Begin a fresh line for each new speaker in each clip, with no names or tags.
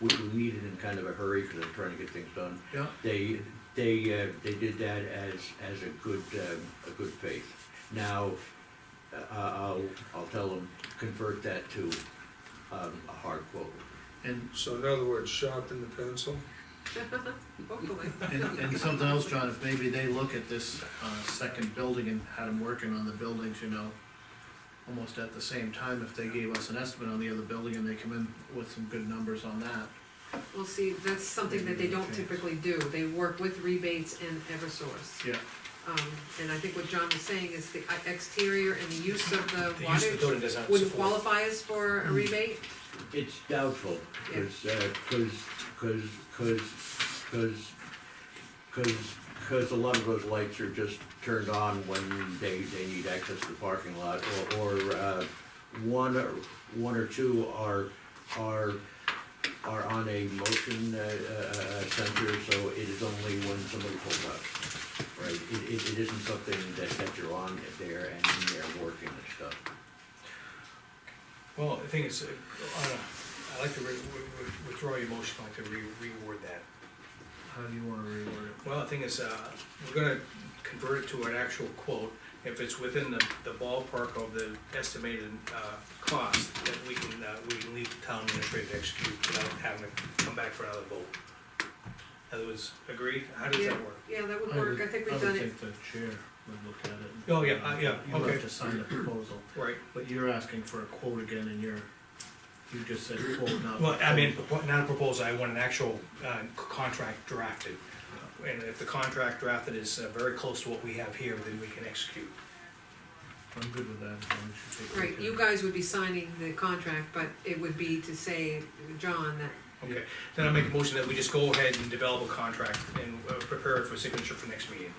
we, we needed in kind of a hurry because I'm trying to get things done.
Yeah.
They, they, uh, they did that as, as a good, um, a good faith. Now, uh, I'll, I'll tell them, convert that to, um, a hard quote.
And,
So in other words, sharpen the pencil?
Hopefully.
and, and something else, John, if maybe they look at this, uh, second building and had them working on the buildings, you know, almost at the same time, if they gave us an estimate on the other building and they come in with some good numbers on that.
We'll see, that's something that they don't typically do, they work with rebates and Eversource.
Yeah.
Um, and I think what John was saying is the exterior and the use of the
They use the
water
building design
would
support.
qualify us for
Mm.
a rebate?
It's doubtful,
Yeah.
cause, uh, cause, cause, cause, cause, cause, 'cause a lot of those lights are just turned on when they, they need access to the parking lot, or, or, uh, one or, one or two are, are, are on a motion, uh, uh, uh, sensor, so it is only when somebody pulls up. Right, it, it, it isn't something that, that you're on there and they're working and stuff.
Well, the thing is, uh, on a- I like to re- wi- wi- withdraw your motion, I like to re- reword that.
How do you wanna reword it?
Well, the thing is, uh, we're gonna convert it to an actual quote, if it's within the the ballpark of the estimated, uh, cost, that we can, uh, we can leave the town administrator to execute without having to come back for another vote. In other words, agreed, how does that work?
Yeah, that would
I
work,
would-
I think
I
we've
would
done it,
think the chair would look at it.
Oh, yeah, I- yeah,
You
okay.
have to sign the proposal,
Right,
but you're asking for a quote again and you're, you just said quote, not.
well, I mean, propo- not a proposal, I want an actual, uh, c- contract drafted. And if the contract drafted is uh, very close to what we have here, then we can execute.
I'm good with that, as long as you take.
right, you guys would be signing the contract, but it would be to say, John, that
Okay, then I make a motion that we just go ahead and develop a contract and uh, prepare it for signature for next meeting.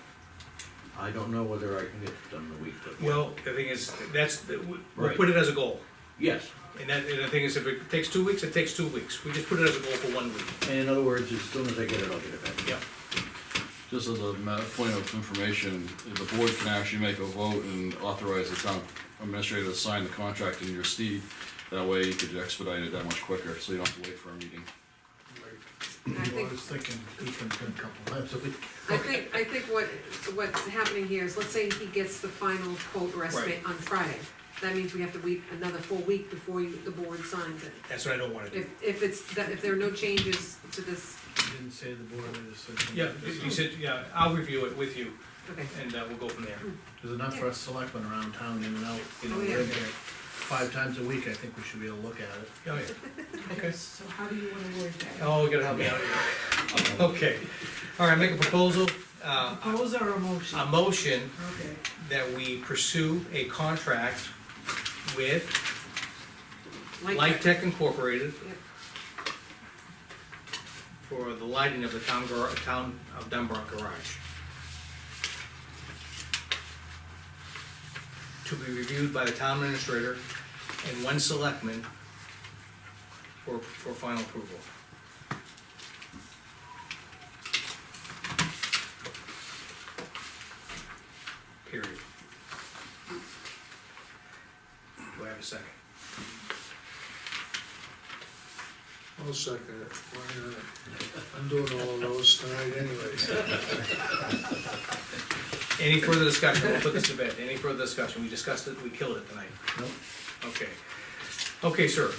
I don't know whether I can get it done in a week, but.
Well, the thing is, that's, the- we- we'll
Right.
put it as a goal.
Yes,
And that, and the thing is, if it takes two weeks, it takes two weeks. We just put it as a goal for one week.
and in other words, as soon as I get it, I'll get it back.
Yeah.
Just as a matter, point of information, the board can actually make a vote and authorize the town administrator to sign the contract in your stead. That way you could expedite it that much quicker, so you don't have to wait for a meeting.
I
Well,
think.
I was thinking he can come a couple times a week.
I think, I think what, what's happening here is, let's say he gets the final quote or estimate on Friday. That means we have to wait another full week before you, the board signs it.
That's what I don't wanna do.
If, if it's, that if there are no changes to this,
He Didn't say the board, I just said.
Yeah, you said, yeah, I'll review it with you
okay.
and uh, we'll go from there.
There's enough for us selectmen around town in and out, you know,
Oh, yeah.
we're in here five times a week, I think we should be able to look at it.
Yeah, Oh, yeah. Okay.
So how do you wanna word that?
Oh, you gotta help me out here. Okay, all right, make a proposal, uh,
Propose or a motion?
a motion
Okay,
that we pursue a contract with
Like
Light
that.
Tech Incorporated
Yep.
for the lighting of the town gar, town of Dunbar garage. To be reviewed by the town administrator and one selectman for, for final approval. Period. Do I have a second?
I'll second it, why not? I'm doing all of those tonight anyways.
Any further discussion, we'll put this to bed, any further discussion, we discussed it, we killed it tonight,
Nope.
okay. Okay, sir,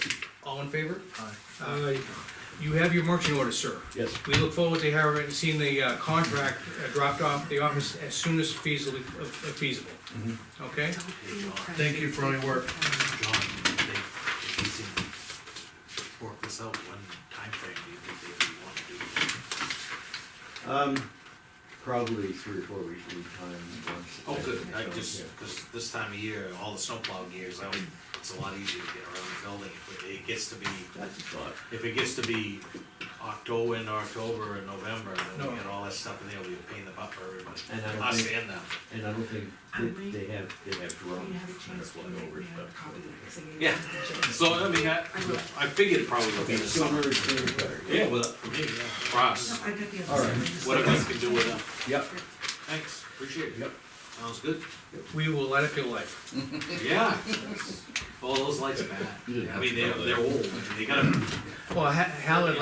all in favor?
Aye.
Aye.
You have your marching orders, sir.
Yes,
We look forward to having, seeing the uh, contract uh, dropped off the office as soon as feasibly, uh, feasible.
Mm-hmm.
Okay?
Thank you for all your work.
John, they, if you can work this out, when timeframe do you think they would want to do?
um, probably three or four weeks lead time once.
Oh, good, I just,
Yeah.
cause this time of year, all the snowplow gears out, it's a lot easier to get around the building, if it- it gets to be,
That's a thought.
if it gets to be October, into October and November, and then
No.
we get all that stuff in there, we'll be a pain in the butt for everybody,
And I don't
us
think-
and them.
And I don't think that they have, they have
we
drones
have a
that are
chance to
flying
make
over
me a
stuff.
copy. so you-
Yeah. So, I mean, I, I figured it probably would be the
Sooner
summer.
is sooner is better.
Yeah, well, for me, yeah, for
No,
us,
I got the other.
All right.
side, just-
whatever you can do with them,
Yep,
thanks, appreciate it,
yep.
sounds good.
We will light up your life.
Yeah. Well, those lights are bad.
You didn't
I mean,
have
they're,
to go
they're
there.
old. They gotta
Well, Ha- Hal had